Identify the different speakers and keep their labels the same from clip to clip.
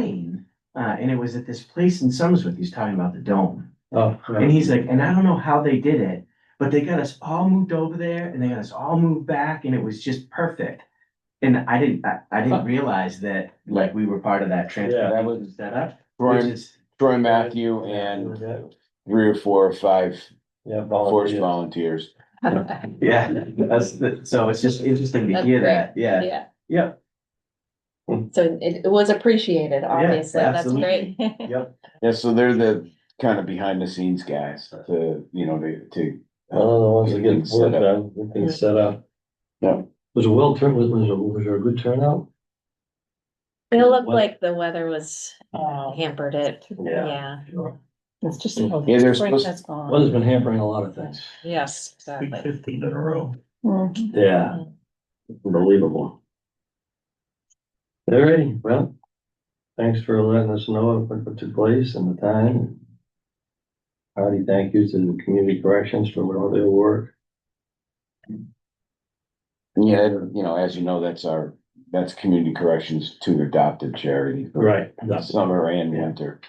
Speaker 1: rain, uh, and it was at this place in Somersworth, he's talking about the dome.
Speaker 2: Oh,
Speaker 1: And he's like, and I don't know how they did it, but they got us all moved over there and they got us all moved back and it was just perfect. And I didn't, I, I
Speaker 2: Huh.
Speaker 1: didn't realize that, like, we were part of that
Speaker 2: Yeah, that
Speaker 1: transfer
Speaker 2: was-
Speaker 1: was set up. which
Speaker 3: Troy,
Speaker 1: is-
Speaker 3: Troy Matthew and three or four or five
Speaker 2: Oh, Yeah,
Speaker 3: force
Speaker 2: volunteer.
Speaker 3: volunteers.
Speaker 1: Yeah, that's, the- so it's just interesting to
Speaker 4: That's
Speaker 1: hear
Speaker 4: great.
Speaker 1: that, yeah.
Speaker 4: Yeah.
Speaker 2: Yeah.
Speaker 4: So it, it was appreciated, obviously. That's
Speaker 1: absolutely.
Speaker 4: great.
Speaker 3: Yeah, so they're the kind of behind the scenes guys to, you know, to, to.
Speaker 2: One of the ones that
Speaker 3: Getting
Speaker 2: gets
Speaker 3: set
Speaker 2: work
Speaker 3: up.
Speaker 2: done, we can set up.
Speaker 3: Yeah.
Speaker 2: Was a well turn, was, was, a- was there a good turnout?
Speaker 4: It looked
Speaker 2: What-
Speaker 4: like the weather was hampered it.
Speaker 2: uh, Yeah.
Speaker 4: Yeah.
Speaker 2: Sure. Mm.
Speaker 4: It's just.
Speaker 2: Yeah,
Speaker 3: Yeah, they're supposed,
Speaker 2: Weather's been hampering a lot of things.
Speaker 4: Yes, exactly.
Speaker 5: Fifteen in a row.
Speaker 4: Mhm.
Speaker 2: Yeah. Unbelievable. All righty, well, thanks for letting us know what what took place and the time. Hearty thank you to the community corrections for all their work.
Speaker 3: yeah, you know, as you know, that's our, that's Community Corrections to adopted charity. for
Speaker 2: Right.
Speaker 3: Summer and
Speaker 2: Yeah.
Speaker 3: winter.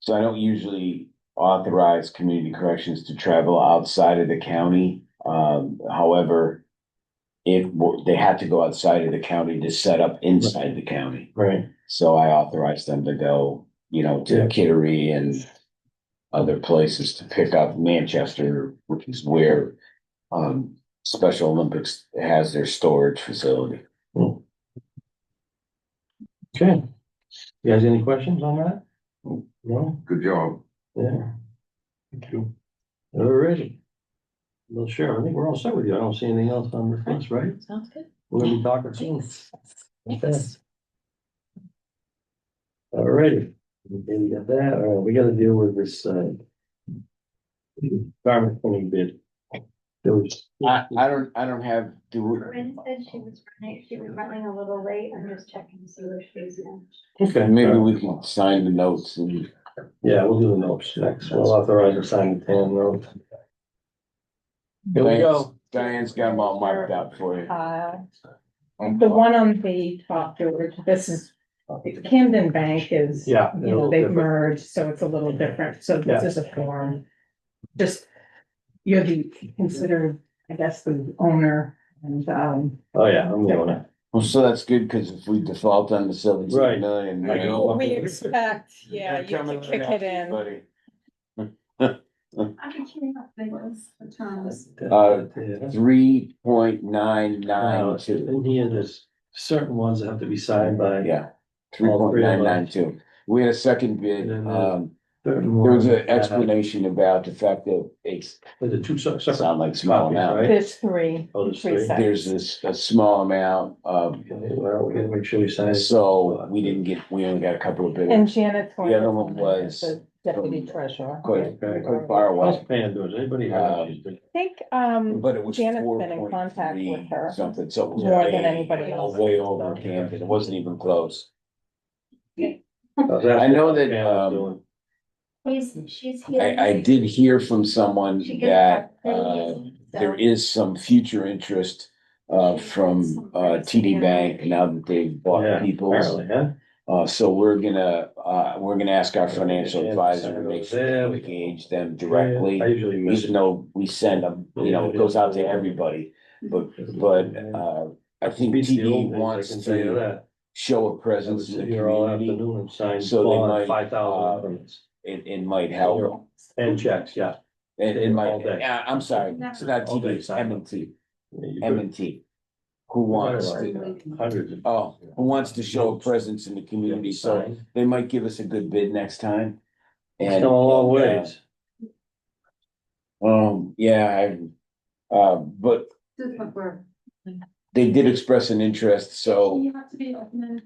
Speaker 3: So I don't usually authorize Community Corrections to travel outside of the county. Um, however, it, wa- they had to go outside of the county to set up inside the county.
Speaker 2: Right,
Speaker 3: So I authorized them to go, you know,
Speaker 2: Yeah.
Speaker 3: to Kittery and other places to pick up Manchester, which is where um Special Olympics has their storage facility.
Speaker 2: okay. You guys any questions on that? No?
Speaker 6: Good job.
Speaker 2: Yeah. Thank you. All righty. Well, sure, I think we're all set with you. I don't see anything else on the fence, right?
Speaker 4: Sounds good.
Speaker 2: We're gonna be talking soon.
Speaker 4: Thanks.
Speaker 2: Okay. All righty, okay, we got that, all right, we gotta deal with this, uh. Garment printing bid. There was,
Speaker 3: I I don't, I don't have, do, we-
Speaker 7: Corinne said she was running, she was running a little late. I'm just checking to see where she's at.
Speaker 2: okay,
Speaker 3: maybe we can sign the notes and
Speaker 2: Yeah, we'll do the notes next, we'll authorize her signing the ten note. Here we go.
Speaker 3: Diane's got them all marked out for you.
Speaker 8: Uh, the one on the top, George, this is, Camden Bank is, you
Speaker 2: Yeah.
Speaker 8: know, they've merged, so it's a little different, so this is a form. Just, you're the, considered, I guess, the owner and, um,
Speaker 2: Oh, yeah, I'm going to.
Speaker 3: Well, so that's good, cause if we default on the seventeen
Speaker 2: Right.
Speaker 3: million.
Speaker 6: I know.
Speaker 8: we expect, yeah, you
Speaker 3: Coming
Speaker 8: can kick
Speaker 3: right
Speaker 8: it
Speaker 3: at you,
Speaker 8: in.
Speaker 3: buddy.
Speaker 7: I can hear up there was the times.
Speaker 3: Uh,
Speaker 2: Yeah.
Speaker 3: Three point nine
Speaker 2: Now,
Speaker 3: nine two.
Speaker 2: Uh, in here, there's certain ones that have to be signed by.
Speaker 3: Yeah, three point nine nine two. We had a second bid,
Speaker 2: And then the- uh,
Speaker 3: um,
Speaker 2: certain
Speaker 3: there was
Speaker 2: ones
Speaker 3: an
Speaker 2: that-
Speaker 3: explanation about the fact that it's,
Speaker 2: But the two se- separate.
Speaker 3: sound like small
Speaker 2: copies,
Speaker 3: amount.
Speaker 2: right?
Speaker 8: There's three.
Speaker 2: Oh, there's
Speaker 8: Three
Speaker 2: three.
Speaker 8: sets.
Speaker 3: There's this, a small amount of,
Speaker 2: Okay, Well, we gotta make sure we sign. it.
Speaker 3: so we didn't get, we only got a couple of
Speaker 8: And
Speaker 3: bids.
Speaker 8: Janet.
Speaker 3: The other one was
Speaker 8: the Deputy treasurer.
Speaker 3: Quite,
Speaker 2: Okay.
Speaker 3: quite far
Speaker 2: How's
Speaker 3: away,
Speaker 2: Pam doing? Does anybody
Speaker 3: Uh,
Speaker 2: have?
Speaker 8: I think, um,
Speaker 3: but it was
Speaker 8: Janet's
Speaker 3: four
Speaker 8: been in
Speaker 3: point
Speaker 8: contact
Speaker 3: three
Speaker 8: with her
Speaker 3: something, so it was
Speaker 8: more than
Speaker 3: way,
Speaker 8: anybody else.
Speaker 3: way over Camden. It wasn't even close.
Speaker 2: I
Speaker 3: know that, um,
Speaker 7: She's, she's here.
Speaker 3: I, I did hear from someone
Speaker 7: She gets
Speaker 3: that,
Speaker 7: her
Speaker 3: uh,
Speaker 7: things,
Speaker 3: there
Speaker 7: so-
Speaker 3: is some future interest uh from uh TD Bank now that they've bought
Speaker 2: Yeah,
Speaker 3: Peoples.
Speaker 2: Apparently, huh?
Speaker 3: Uh, so we're gonna, uh, we're gonna ask our financial
Speaker 2: Yeah,
Speaker 3: advisor
Speaker 2: sign
Speaker 3: to make
Speaker 2: those
Speaker 3: sure
Speaker 2: there.
Speaker 3: we engage them
Speaker 2: I
Speaker 3: directly.
Speaker 2: usually miss
Speaker 3: Even
Speaker 2: it.
Speaker 3: though we send them, you know, it goes out to everybody, but but uh, I think
Speaker 2: Beats the old
Speaker 3: TD
Speaker 2: days, I
Speaker 3: wants
Speaker 2: can tell you
Speaker 3: to
Speaker 2: that.
Speaker 3: show a
Speaker 2: I would
Speaker 3: presence in the
Speaker 2: sit here all
Speaker 3: community.
Speaker 2: afternoon and sign
Speaker 3: so they might, uh,
Speaker 2: bond, five thousand ordinance
Speaker 3: It it might help,
Speaker 2: and checks, yeah.
Speaker 3: it it
Speaker 2: All
Speaker 3: might,
Speaker 2: day.
Speaker 3: yeah, I'm sorry, it's not
Speaker 2: All day
Speaker 3: TD, it's M
Speaker 2: signing.
Speaker 3: and T,
Speaker 2: Yeah, you
Speaker 3: M
Speaker 2: could-
Speaker 3: and T. Who wants to
Speaker 2: Hundreds of.
Speaker 3: Oh, who wants to show a presence in the community, so
Speaker 2: Sign.
Speaker 3: they might give us a good bid next time.
Speaker 2: It's
Speaker 3: And-
Speaker 2: come a long
Speaker 3: and, uh,
Speaker 2: ways.
Speaker 3: Um, yeah, I, uh, but
Speaker 7: This is what we're-
Speaker 3: they did express an interest, so,
Speaker 7: You have to be open-minded.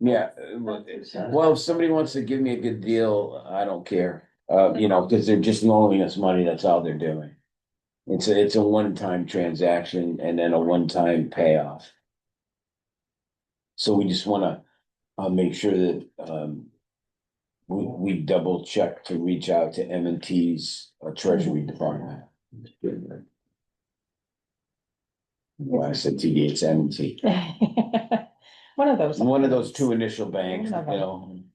Speaker 3: yeah. uh, Well, if somebody wants to give me a good deal, I don't care, uh, you know, cause they're just loaning us money, that's all they're doing. It's a, it's a one-time transaction and then a one-time payoff. So we just wanna, uh, make sure that, um. We, we double check to reach out to M and T's uh, Treasury Department. When I said TD, it's M and T.
Speaker 8: One of those.
Speaker 3: One of those two initial banks, you know,